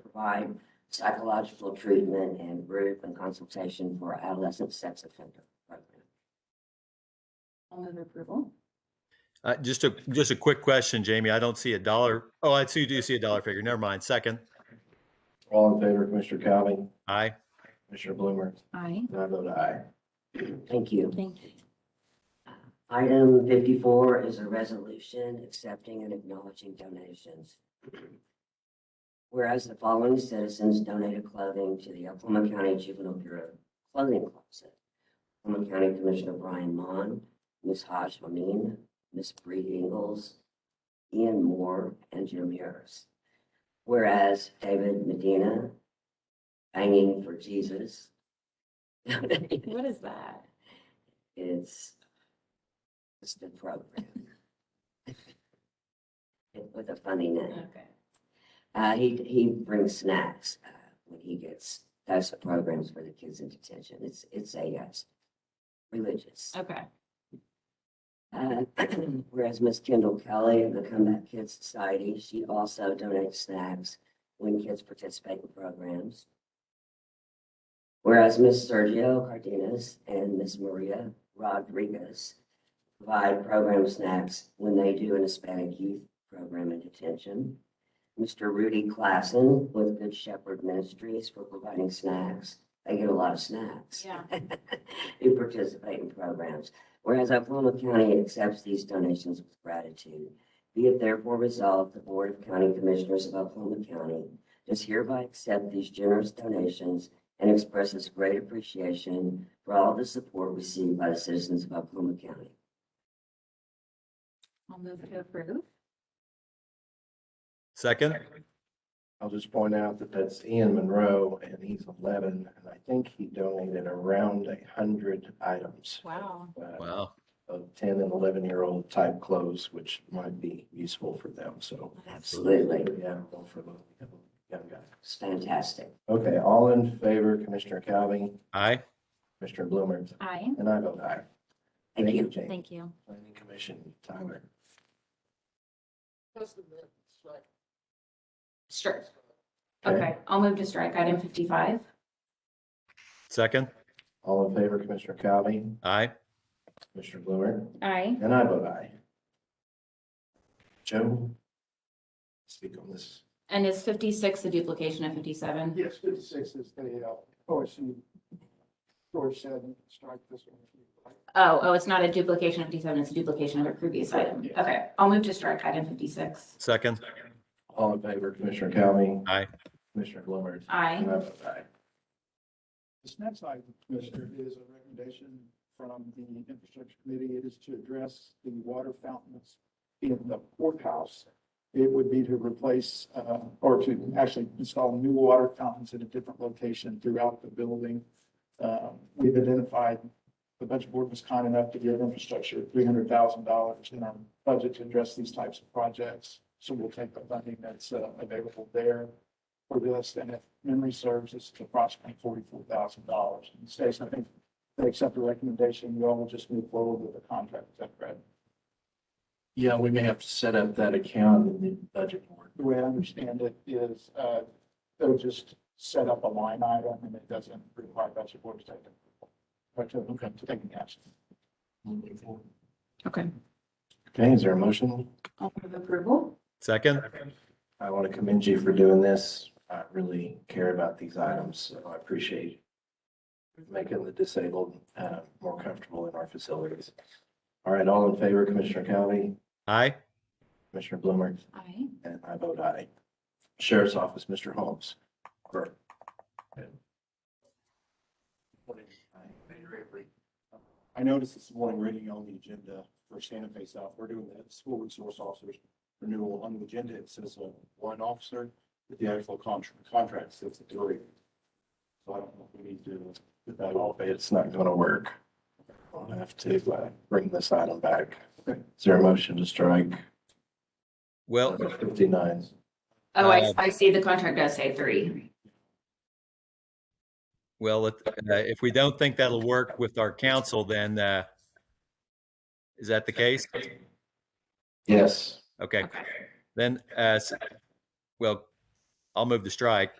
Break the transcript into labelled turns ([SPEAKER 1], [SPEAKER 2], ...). [SPEAKER 1] provide psychological treatment and group and consultation for adolescent sex offender program.
[SPEAKER 2] I'll move approval.
[SPEAKER 3] Uh, just a, just a quick question, Jamie. I don't see a dollar. Oh, I see, you do see a dollar figure. Never mind. Second.
[SPEAKER 4] All in favor, Commissioner Cowan,
[SPEAKER 3] Aye.
[SPEAKER 4] Commissioner Bloomer,
[SPEAKER 2] Aye.
[SPEAKER 4] and I vote aye.
[SPEAKER 1] Thank you.
[SPEAKER 2] Thank you.
[SPEAKER 1] Item fifty-four is a resolution accepting and acknowledging donations. Whereas the following citizens donated clothing to the Oklahoma County Juvenile Bureau Clothing Closet. Oklahoma County Commissioner Brian Mon, Ms. Haj Amin, Ms. Bree Ingles, Ian Moore, and Jim Harris. Whereas David Medina, Banging for Jesus.
[SPEAKER 2] What is that?
[SPEAKER 1] It's it's the program. With a funny name.
[SPEAKER 2] Okay.
[SPEAKER 1] Uh, he, he brings snacks, uh, when he gets, that's the programs for the kids in detention. It's, it's a, uh, religious.
[SPEAKER 2] Okay.
[SPEAKER 1] Uh, Whereas Miss Kendall Kelly of the Comeback Kids Society, she also donates snacks when kids participate in programs. Whereas Miss Sergio Cardenas and Miss Maria Rodriguez provide program snacks when they do an Hispanic youth program in detention. Mr. Rudy Klassen with Good Shepherd Ministries for providing snacks. They get a lot of snacks.
[SPEAKER 2] Yeah.
[SPEAKER 1] Who participate in programs. Whereas Oklahoma County accepts these donations with gratitude, be it therefore resolved, the Board of County Commissioners of Oklahoma County does hereby accept these generous donations and expresses great appreciation for all the support received by the citizens of Oklahoma County.
[SPEAKER 2] I'll move to approve.
[SPEAKER 3] Second.
[SPEAKER 4] I'll just point out that that's Ian Monroe, and he's eleven, and I think he donated around a hundred items.
[SPEAKER 2] Wow.
[SPEAKER 4] uh,
[SPEAKER 3] Wow.
[SPEAKER 4] Of ten and eleven-year-old type clothes, which might be useful for them, so.
[SPEAKER 1] Absolutely.
[SPEAKER 4] Yeah, well, for the young guy.
[SPEAKER 1] It's fantastic.
[SPEAKER 4] Okay, all in favor, Commissioner Cowan,
[SPEAKER 3] Aye.
[SPEAKER 4] Commissioner Bloomer,
[SPEAKER 2] Aye.
[SPEAKER 4] and I vote aye.
[SPEAKER 1] Thank you.
[SPEAKER 4] Jane.
[SPEAKER 2] Thank you.
[SPEAKER 4] Planning Commission, Tyler.
[SPEAKER 2] Sure.
[SPEAKER 4] Okay.
[SPEAKER 2] Okay, I'll move to strike item fifty-five.
[SPEAKER 3] Second.
[SPEAKER 4] All in favor, Commissioner Cowan,
[SPEAKER 3] Aye.
[SPEAKER 4] Commissioner Bloomer,
[SPEAKER 2] Aye.
[SPEAKER 4] and I vote aye. Joe? Speak on this.
[SPEAKER 2] And is fifty-six the duplication of fifty-seven?
[SPEAKER 5] Yes, fifty-six is the uh, OSU. George said, strike this one. if you like.
[SPEAKER 2] Oh, oh, it's not a duplication of fifty-seven, it's a duplication of a previous item.
[SPEAKER 5] Yes.
[SPEAKER 2] Okay, I'll move to strike item fifty-six.
[SPEAKER 3] Second.
[SPEAKER 4] All in favor, Commissioner Cowan?
[SPEAKER 3] Aye.
[SPEAKER 4] Commissioner Bloomer?
[SPEAKER 2] Aye.
[SPEAKER 4] And I vote aye.
[SPEAKER 5] This next item, Commissioner, is a recommendation from the Infrastructure Committee. It is to address the water fountains in the courthouse. It would be to replace, uh, or to actually install new water fountains at a different location throughout the building. Um, We've identified, the budget board was kind enough to give infrastructure three hundred thousand dollars in our budget to address these types of projects. So we'll take the funding that's uh, available there for this, and if memory serves, it's approximately forty-four thousand dollars. And Stacy, I think they accept the recommendation, you all will just move forward with the contract, is that correct?
[SPEAKER 4] Yeah, we may have to set up that account in the budget board.
[SPEAKER 5] The way I understand it is, uh, they'll just set up a line item, and it doesn't require budget board to take it. Or to, to take any uh, action.
[SPEAKER 2] Okay.
[SPEAKER 4] Okay, is there a motion?
[SPEAKER 2] I'll move approval.
[SPEAKER 3] Second.
[SPEAKER 4] I want to commend you for doing this. I really care about these items, so I appreciate making the disabled uh, more comfortable in our facilities. All right, all in favor, Commissioner Cowan,
[SPEAKER 3] Aye.
[SPEAKER 4] Commissioner Bloomer,
[SPEAKER 2] Aye.
[SPEAKER 4] and I vote aye. Sheriff's Office, Mr. Holmes. Or-
[SPEAKER 5] I noticed this morning reading on the agenda for Santa Fe South, we're doing the school resource officers renewal on the agenda. It says uh, one officer, but the actual contract, contract says three. So I don't know if we need to put that all.
[SPEAKER 4] It's not going to work. I'll have to uh, bring this item back. Is there a motion to strike
[SPEAKER 3] Well,
[SPEAKER 4] number 59?
[SPEAKER 2] Oh, I,
[SPEAKER 3] Uh,
[SPEAKER 2] I see the contract does say three.
[SPEAKER 3] well, it- uh, if we don't think that'll work with our council, then uh, is that the case?
[SPEAKER 4] Yes.
[SPEAKER 3] Okay.
[SPEAKER 2] Okay.
[SPEAKER 3] Then, uh, s- well, I'll move the strike.